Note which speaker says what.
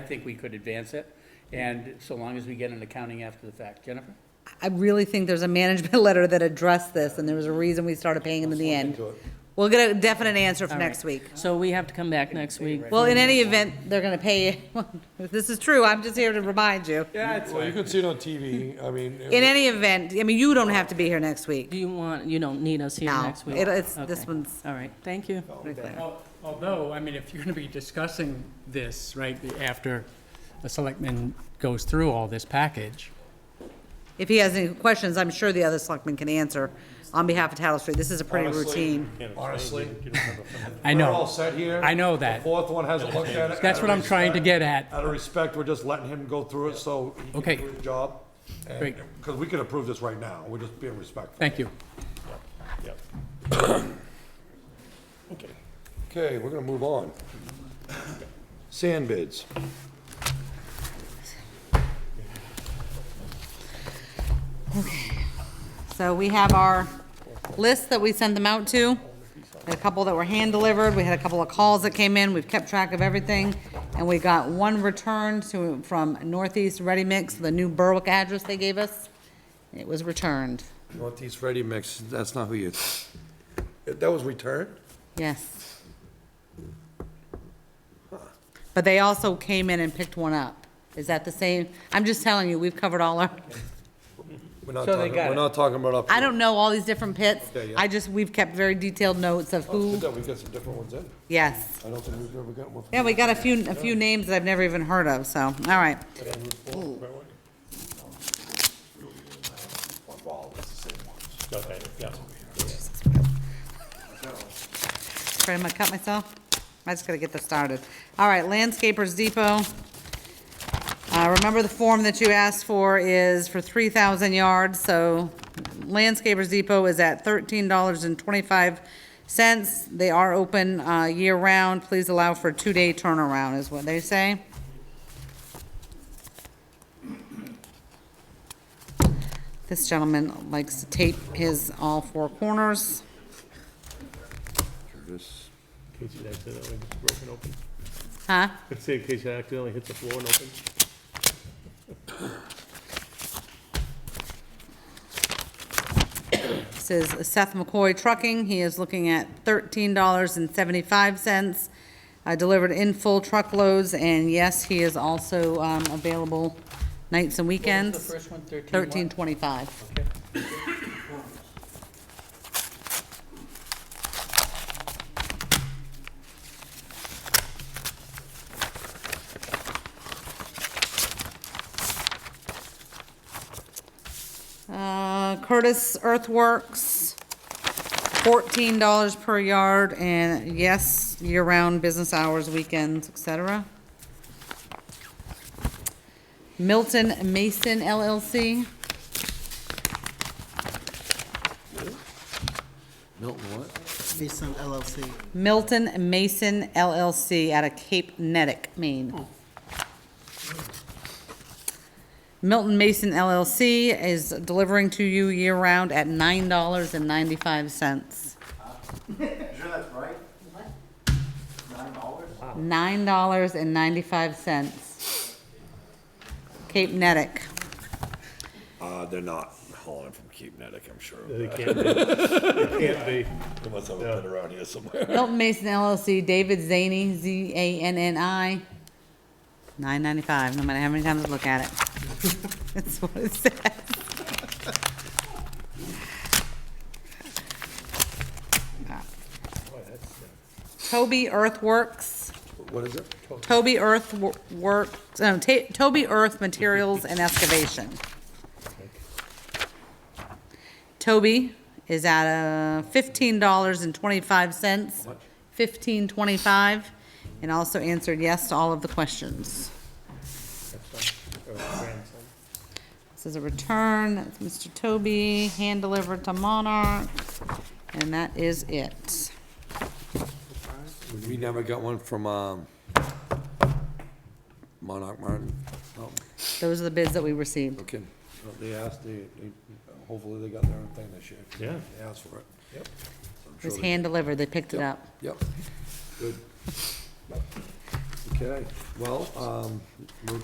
Speaker 1: think we could advance it, and so long as we get an accounting after the fact. Jennifer?
Speaker 2: I really think there's a management letter that addressed this, and there was a reason we started paying them in the end. We'll get a definite answer for
Speaker 3: All right.
Speaker 2: next week.
Speaker 3: So we have to come back next week.
Speaker 2: Well, in any event, they're gonna pay you. If this is true, I'm just here to remind you.
Speaker 1: Yeah, it's
Speaker 4: Well, you can see it on TV, I mean. it
Speaker 2: In any event, I mean, you don't have to be here next week.
Speaker 3: Do you want, you don't need us here
Speaker 2: No,
Speaker 3: next week?
Speaker 2: it- it's- this
Speaker 3: Okay.
Speaker 2: one's-
Speaker 3: All right, thank you.
Speaker 5: Al- Although, I mean, if you're going to be discussing this, right, after the selectman goes through all this package,
Speaker 2: If he has any questions, I'm sure the other selectmen can answer on behalf of Tattle Street. This is a pretty routine.
Speaker 4: was- Honestly,
Speaker 5: I
Speaker 4: we're all
Speaker 5: know,
Speaker 4: set here.
Speaker 5: I know
Speaker 4: The
Speaker 5: that.
Speaker 4: fourth one hasn't looked at it.
Speaker 5: That's
Speaker 4: Out
Speaker 5: what
Speaker 4: of
Speaker 5: I'm trying to
Speaker 4: respect-
Speaker 5: get at.
Speaker 4: Out of respect, we're just letting him go through it, so he
Speaker 5: Okay.
Speaker 4: can do his job.
Speaker 5: Great.
Speaker 4: Because we could approve this right now, we're just being respectful.
Speaker 5: Thank you.
Speaker 4: Okay, we're gonna move on. Sand bids.
Speaker 2: So we have our list that we sent them out to, a couple that were hand-delivered, we had a couple of calls that came in, we've kept track of everything, and we got one return to, from Northeast Ready Mix, the new Berwick address they gave us. It was returned,
Speaker 4: Northeast Ready Mix, that's not who you, that was returned?
Speaker 2: yes. But they also came in and picked one up. Is that the same? I'm just telling you, we've covered all our,
Speaker 4: We're not
Speaker 1: So they
Speaker 4: talking,
Speaker 1: got
Speaker 4: we're
Speaker 1: it.
Speaker 4: not talking about up.
Speaker 2: I don't know all these different pits.
Speaker 4: Yeah, yeah. Oh,
Speaker 2: I just, we've kept very detailed notes of who,
Speaker 4: We've got some different ones in.
Speaker 2: yes.
Speaker 4: I don't think we've ever gotten one. from-
Speaker 2: Yeah, we got a few, a few names that I've never even heard of, so, all right. Afraid I'm gonna cut myself? I just gotta get this started. All right, Landscapers Depot. Uh, remember the form that you asked for is for three thousand yards, so Landscapers Depot is at thirteen dollars and twenty-five cents. They are open, uh, year-round. Please allow for a two-day turnaround, is what they say. This gentleman likes to tape his all four corners.
Speaker 4: This-
Speaker 6: case it accidentally gets broken open.
Speaker 2: Huh?
Speaker 6: I'd say in case it accidentally hits the floor and opens.
Speaker 2: This is Seth McCoy Trucking. He is looking at thirteen dollars and seventy-five cents, uh, delivered in full truckloads, and yes, he is also, um, available nights and
Speaker 1: The
Speaker 2: weekends,
Speaker 1: first one, thirteen what?
Speaker 2: thirteen twenty-five. Uh, Curtis Earthworks, fourteen dollars per yard, and yes, year-round business hours, weekends, et cetera. Milton Mason LLC,
Speaker 4: Milton what?
Speaker 7: Mason LLC.
Speaker 2: Milton Mason LLC out of Cape Nettic, Maine. Milton Mason LLC is delivering to you year-round at nine dollars and ninety-five cents.
Speaker 8: Sure that's right? What? Nine dollars?
Speaker 2: Nine dollars and ninety-five cents. Cape Nettic.
Speaker 4: Uh, they're not hauling from Cape Natick, I'm sure.
Speaker 6: They can't be. They can't be.
Speaker 4: They must have a bit around here somewhere.
Speaker 2: Milton Mason LLC, David Zaney, Z-A-N-N-I, nine ninety-five, no matter how many times I look at it. That's what it says. Toby Earthworks,
Speaker 4: What is it?
Speaker 2: Toby Earthworks, no, Ta- Toby Earth Materials and Excavation. Toby is at a fifteen dollars and twenty-five cents. Fifteen twenty-five, and also answered yes to all of the questions. This is a return, that's Mr. Toby, hand-delivered to Monarch, and that is it.
Speaker 4: We never got one from, um, Monarch Martin. Oh,
Speaker 2: Those are the bids that we received.
Speaker 4: okay. Well, They asked, they, they, hopefully they got their own thing this year.
Speaker 6: Yeah.
Speaker 4: They asked for it. Yep.
Speaker 2: It was hand-delivered, they picked it up.
Speaker 4: Yep. Good. Okay, well, um, we're